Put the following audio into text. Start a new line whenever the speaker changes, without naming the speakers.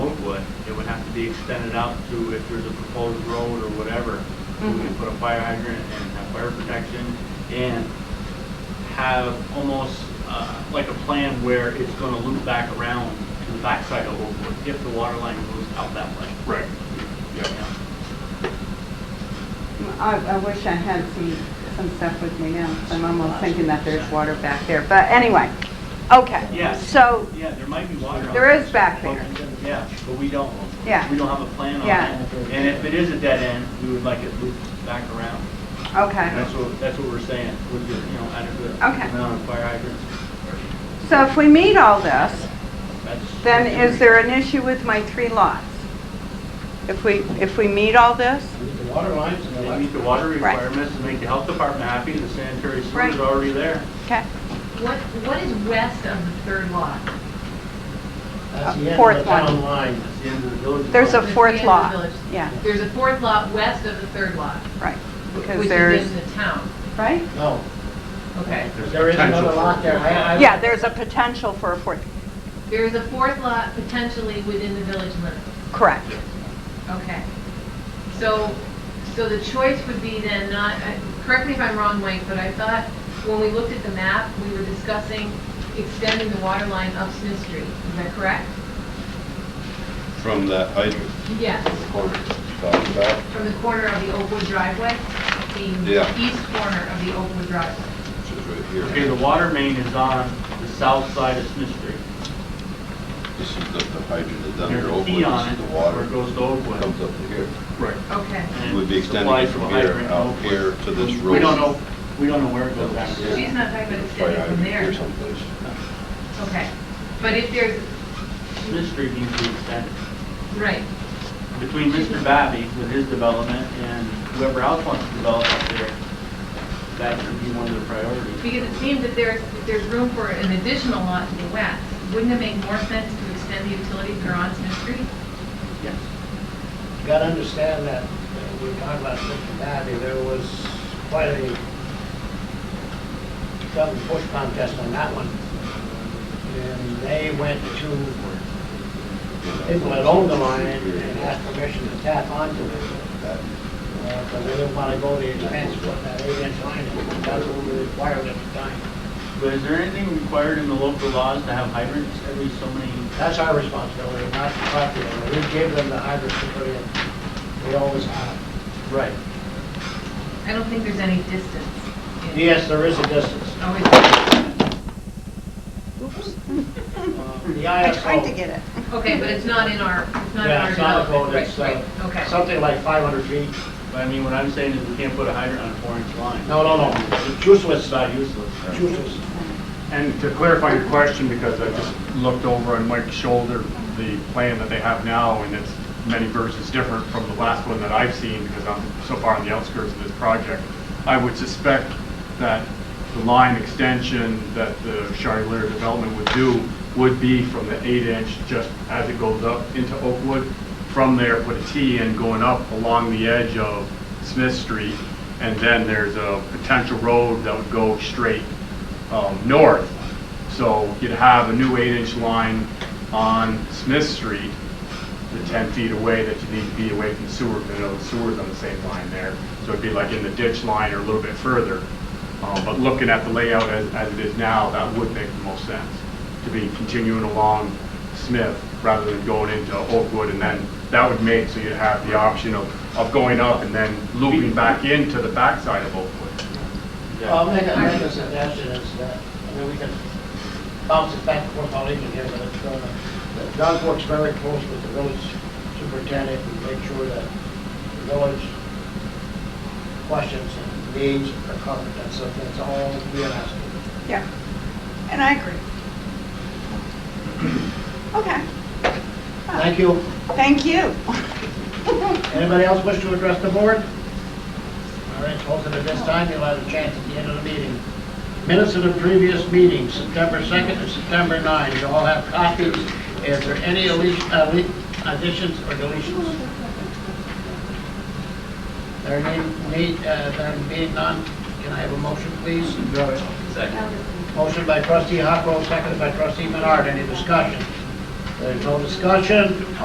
road would. It would have to be extended out to if there's a proposed road or whatever. We
Mm-hmm.
could put a fire hydrant and have fire protection and have almost uh, like a plan where it's going to loop back around to the backside of Oakwood if the water line goes out that way.
Right,
You
yeah.
know?
I, I wish I had some, some stuff with me now, 'cause I'm almost thinking that there's water back there, but anyway, okay.
Yes.
So,
Yeah, there might be water. out
There is back there.
Yeah, but we don't, we
Yeah.
don't have a plan on
Yeah.
it. And if it is a dead end, we would like it looped back around. And
okay,
that's what, that's what we're saying, with the, you know, adequate
Okay.
amount of fire hydrants.
so if we meet all this,
That's-
then is there an issue with my three lots? If we, if we meet all this?
The water lines and the
They
electric.
meet the water
Right.
requirements to make the health department happy, the sanitary sewer
Right.
is already there.
Okay,
What, what is west of the third lot?
That's the end
Fourth
of the
one.
town line.
That's the end of the village.
there's a
There's three
fourth
in the
lot.
village.
Yeah,
There's a fourth lot west of the third lot,
right, because
which
there's,
is in the town.
right?
No,
Okay.
there is another lot there. I- I-
Yeah, there's a potential for a fourth,
There is a fourth lot potentially within the village limits.
correct.
Okay. So, so the choice would be then not, I- correct me if I'm wrong, Mike, but I thought when we looked at the map, we were discussing extending the water line up Smith Street. Is that correct?
From that hydrant
Yes,
corner you talked about?
from the corner of the Oakwood driveway, the
Yeah.
east corner of the Oakwood driveway.
Which is right
Okay,
here.
the water main is on the south side of Smith Street.
This is the the hydrant that's down
There's
here,
a
Oakwood,
T on
this
it
is the
where
water,
it goes to Oakwood.
comes up to here.
Right.
Okay.
It would be extending
Applies
it
to
from
a
here
hydrant in
out
Oakwood.
here to this road.
We don't know, we don't know where it goes
That's
after.
here.
that.
She's not talking about
Fire
extending from
hydrant
there.
Here someplace.
Okay. But if there's,
Smith Street needs to be extended.
right,
Between Mr. Babby with his development and whoever else wants to develop up there, that should be one of the priorities.
because it seems that there's, if there's room for an additional lot to the west, wouldn't it make more sense to extend the utilities that are on Smith Street?
Yes.
You gotta understand that, uh, we talked about Mr. Babby, there was quite a, some push contest on that one. And they went to people that owned the line and asked permission to tap onto it. Because they didn't want to go the expense of putting that eight-inch line in, that's what we required at the time.
But is there anything required in the local laws to have hydrants every so many?
That's our responsibility, not the property owner. We gave them the hydrants to put in. We always have.
Right.
I don't think there's any distance. in-
Yes, there is a distance.
Oh, is-
Uh, The
I tried to
ISO,
get it.
Okay, but it's not in our, it's not in
yeah,
our
it's not a
development.
code,
Right,
it's
right,
uh,
Okay.
something like 500 feet.
But I mean, what I'm saying is we can't put a hydrant on a four-inch line.
No, no, no, it's useless,
It's not useless.
useless.
And to clarify your question, because I just looked over on Mike's shoulder, the plan that they have now, and it's many versions different from the last one that I've seen, because I'm so far on the outskirts of this project. I would suspect that the line extension that the Charlier development would do would be from the eight inch, just as it goes up into Oakwood. From there, put a T in going up along the edge of Smith Street, and then there's a potential road that would go straight um, north. So you'd have a new eight-inch line on Smith Street, the 10 feet away that you need to be away from the sewer, because you know, the sewer's on the same line there. So it'd be like in the ditch line or a little bit further. Uh, But looking at the layout as, as it is now, that would make the most sense, to be continuing along Smith rather than going into Oakwood. And then that would make, so you'd have the option of, of going up and then looping back into the backside of Oakwood.
Well, I'll make a, make a suggestion is that, I mean, uh, we can bounce it back and forth all evening here, but it's, uh, that Doug works very close with the village superintendent and make sure that the village questions and needs are covered, that's, that's all we are asking.
Yeah, and I agree. Okay,
Thank you.
thank you.
Anybody else wish to address the board? All right, hold it at this time, you'll have a chance at the end of the meeting. Minutes of the previous meeting, September 2nd and September 9. You all have copies. Is there any elec- ele- additions or deletions? There need, need, uh, there being none, can I have a motion, please? Motion by trustee Huckrow, seconded by trustee Menard. Any discussion? There's no discussion.